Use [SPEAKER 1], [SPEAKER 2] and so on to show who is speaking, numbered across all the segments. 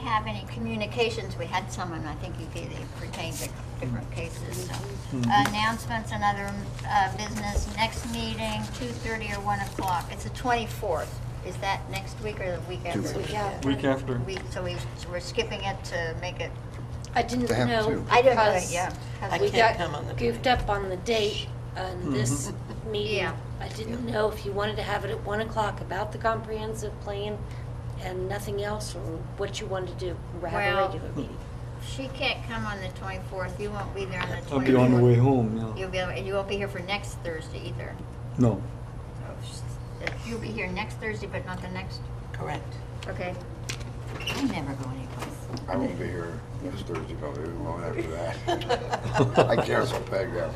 [SPEAKER 1] have any communications, we had some, and I think you gave, it pertained to different cases, so.
[SPEAKER 2] Mm-hmm.
[SPEAKER 1] Announcements and other, uh, business, next meeting, two thirty or one o'clock, it's the twenty-fourth. Is that next week or the week after?
[SPEAKER 3] Two weeks.
[SPEAKER 4] Yeah.
[SPEAKER 2] Week after.
[SPEAKER 1] Week, so we, so we're skipping it to make it,
[SPEAKER 4] I didn't
[SPEAKER 3] They have
[SPEAKER 4] know
[SPEAKER 3] to.
[SPEAKER 1] I don't know,
[SPEAKER 4] because
[SPEAKER 1] yeah.
[SPEAKER 5] I
[SPEAKER 4] we
[SPEAKER 5] can't
[SPEAKER 4] got
[SPEAKER 5] come on the
[SPEAKER 4] goofed up on the date
[SPEAKER 3] Mm-hmm.
[SPEAKER 4] on this meeting.
[SPEAKER 1] Yeah.
[SPEAKER 4] I didn't know if you wanted to have it at one o'clock about the comprehensive plan and nothing else, or what you wanted to do, or have a
[SPEAKER 1] Well-
[SPEAKER 4] regular meeting.
[SPEAKER 1] She can't come on the twenty-fourth, you won't be there on the twenty-fourth.
[SPEAKER 2] I'll be on the way home, yeah.
[SPEAKER 1] You'll be, and you won't be here for next Thursday either.
[SPEAKER 2] No.
[SPEAKER 1] So she's- You'll be here next Thursday, but not the next,
[SPEAKER 5] Correct.
[SPEAKER 1] okay? I never go anyplace.
[SPEAKER 3] I won't be here this Thursday, probably even long after that. I canceled Peg out.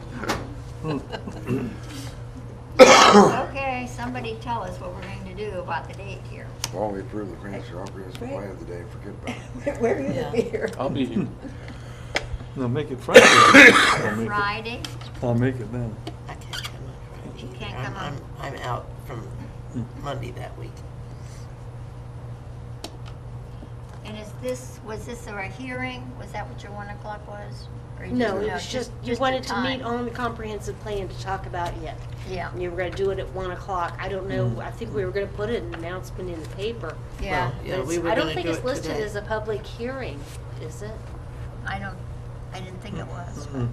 [SPEAKER 1] Okay, somebody tell us what we're going to do about the date here.
[SPEAKER 3] Well, we approved the grants, our grants were planned today, forget about it.
[SPEAKER 1] Where are you
[SPEAKER 5] gonna
[SPEAKER 1] going
[SPEAKER 5] be
[SPEAKER 1] to be here?
[SPEAKER 2] I'll be here. No, make it Friday. I'll make it,
[SPEAKER 1] Friday?
[SPEAKER 2] I'll make it then.
[SPEAKER 5] I can't come on Friday.
[SPEAKER 1] You
[SPEAKER 5] either.
[SPEAKER 1] can't
[SPEAKER 5] I'm-
[SPEAKER 1] come on-
[SPEAKER 5] I'm, I'm out from Monday that week.
[SPEAKER 1] And is this, was this a hearing? Was that what your 1 o'clock was? Or you
[SPEAKER 4] No,
[SPEAKER 1] just-
[SPEAKER 4] it was just, you
[SPEAKER 1] just a
[SPEAKER 4] wanted to
[SPEAKER 1] time?
[SPEAKER 4] meet on the comprehensive plan to talk about it.
[SPEAKER 1] Yeah,
[SPEAKER 4] And you were gonna do it at one o'clock. I don't
[SPEAKER 3] Mm-hmm.
[SPEAKER 4] know, I think we were gonna put an announcement in the paper.
[SPEAKER 1] yeah,
[SPEAKER 5] Well,
[SPEAKER 4] but
[SPEAKER 5] Yeah, we
[SPEAKER 4] it's-
[SPEAKER 5] were
[SPEAKER 4] I don't
[SPEAKER 5] gonna
[SPEAKER 4] think
[SPEAKER 5] do
[SPEAKER 4] it's
[SPEAKER 5] it
[SPEAKER 4] listed
[SPEAKER 5] today.
[SPEAKER 4] as a public hearing, is it?
[SPEAKER 1] I don't, I didn't think it was.
[SPEAKER 3] Mm-hmm.
[SPEAKER 2] Mm.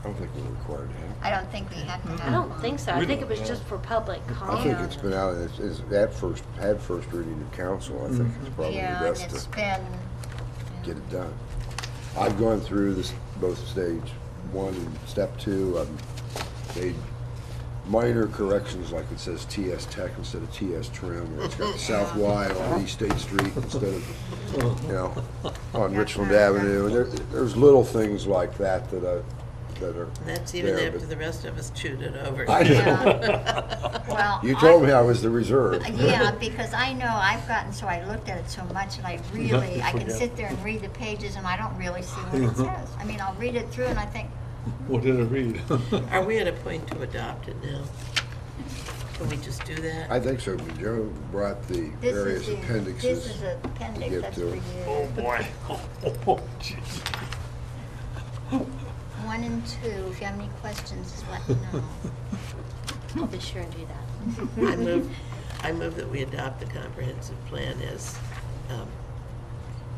[SPEAKER 3] I don't think we're required to have.
[SPEAKER 1] I don't think we had to have
[SPEAKER 4] I
[SPEAKER 3] Mm-hmm.
[SPEAKER 4] don't think so. I
[SPEAKER 2] We
[SPEAKER 4] think it
[SPEAKER 2] don't
[SPEAKER 4] was
[SPEAKER 2] know.
[SPEAKER 4] just for public comment.
[SPEAKER 3] I think it's been out, it's, it's at first, had first reading to council, I think it's probably
[SPEAKER 1] Yeah, and
[SPEAKER 3] best
[SPEAKER 1] it's
[SPEAKER 3] to
[SPEAKER 1] been,
[SPEAKER 3] get it done. I've gone through this, both stage one and step two, I've made minor corrections, like it says TS Tech instead of TS Trim, or it's got South Y on East State Street instead of, you know, on Richland Avenue, and there, there's little things like that that I, that are
[SPEAKER 5] That's even
[SPEAKER 3] there,
[SPEAKER 5] after
[SPEAKER 3] Hmm. but-
[SPEAKER 5] the rest of us chewed it over.
[SPEAKER 3] I know.
[SPEAKER 5] know.
[SPEAKER 1] well.
[SPEAKER 3] You
[SPEAKER 1] I-
[SPEAKER 3] told me I was the reserve.
[SPEAKER 1] Yeah, because I know I've gotten, so I looked at it so much and I really, I can
[SPEAKER 2] forget.
[SPEAKER 1] sit there and read the pages and I don't really see what it says. I mean, I'll read it through and I think,
[SPEAKER 2] What did I read?
[SPEAKER 5] Are we at a point to adopt it now? Can we just do that?
[SPEAKER 3] I think so, but Joe brought the
[SPEAKER 1] this is
[SPEAKER 3] various
[SPEAKER 1] the, this is
[SPEAKER 3] appendixes.
[SPEAKER 1] the appendix,
[SPEAKER 3] get
[SPEAKER 1] that's
[SPEAKER 3] to
[SPEAKER 1] for
[SPEAKER 3] it.
[SPEAKER 1] you.
[SPEAKER 2] boy. Oh, jeez.
[SPEAKER 1] One and two, if you have any questions, just let me know.
[SPEAKER 4] I'll be sure and do that.
[SPEAKER 5] I move, I move that we adopt the comprehensive plan as um,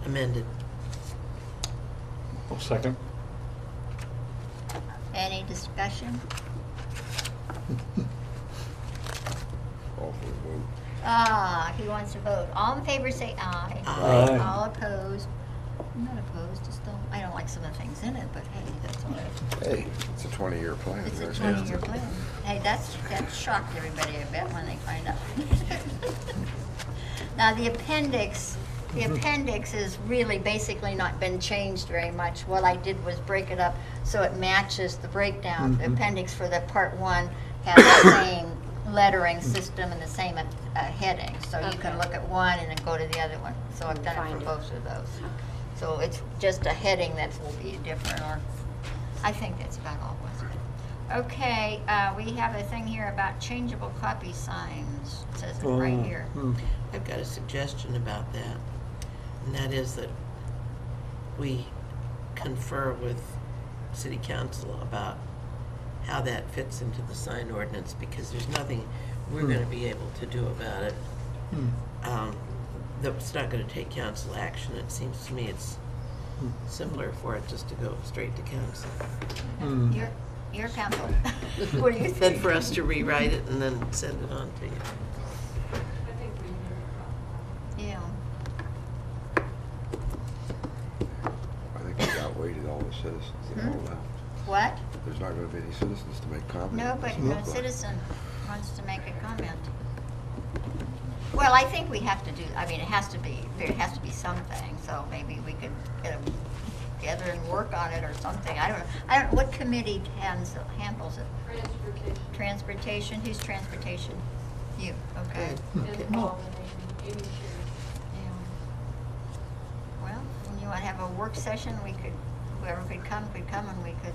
[SPEAKER 5] amended.
[SPEAKER 2] Oh, second.
[SPEAKER 1] Any discussion?
[SPEAKER 3] All for the vote.
[SPEAKER 1] Ah, he wants to vote. All in favor, say aye.
[SPEAKER 2] Aye.
[SPEAKER 1] All opposed? I'm not opposed, just don't, I don't like some of the things in it, but hey, that's all right.
[SPEAKER 3] Hey, it's a 20-year plan.
[SPEAKER 1] It's a
[SPEAKER 3] There's-
[SPEAKER 1] twenty-year plan. Hey, that's, that shocked everybody, I bet, when they find out. Now, the appendix, the appendix has really basically not been changed very much. What I did was break it up so it matches the breakdown. The appendix for the part one has the same lettering system and the same uh, heading. So you can
[SPEAKER 4] Okay.
[SPEAKER 1] look at one and then go to the other one. So I've done it
[SPEAKER 4] Find
[SPEAKER 1] for
[SPEAKER 4] it.
[SPEAKER 1] both of those. So it's just a heading that will be different, or, I think that's about all, wasn't it? Okay, uh, we have a thing here about changeable copy signs, It says it right
[SPEAKER 2] Oh,
[SPEAKER 1] here.
[SPEAKER 2] mm.
[SPEAKER 5] I've got a suggestion about that, and that is that we confer with city council about how that fits into the sign ordinance, because there's nothing we're gonna be able to do about it. Um, That's not gonna take council action, it seems to me it's simpler for it just to go straight to council.
[SPEAKER 2] Mm.
[SPEAKER 1] Your, your council, what do you
[SPEAKER 5] Than
[SPEAKER 1] think?
[SPEAKER 5] for us to rewrite it and then send it on to you.
[SPEAKER 1] Yeah,
[SPEAKER 3] I think we outweighed all the citizens
[SPEAKER 1] Hmm?
[SPEAKER 3] and all that.
[SPEAKER 1] what?
[SPEAKER 3] There's not going to be any citizens to make comments.
[SPEAKER 1] No, but no citizen wants to make a comment. Well, I think we have to do, I mean, it has to be, there has to be something, so maybe we could get them together and work on it or something. I don't know, I don't, what committee hands, handles it?
[SPEAKER 6] Transportation
[SPEAKER 1] Transportation, who's transportation? You, okay.
[SPEAKER 6] and pollination, any shares.
[SPEAKER 1] Yeah. Well, when you want to have a work session, we could, whoever could come, could come and we could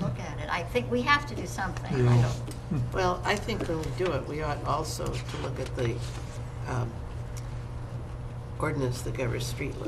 [SPEAKER 1] look at it. I think we have to do something, I
[SPEAKER 2] Mm. Yeah. Mm.
[SPEAKER 1] don't,
[SPEAKER 5] Well, I think when we do it, we ought also to look at the um, ordinance that governs street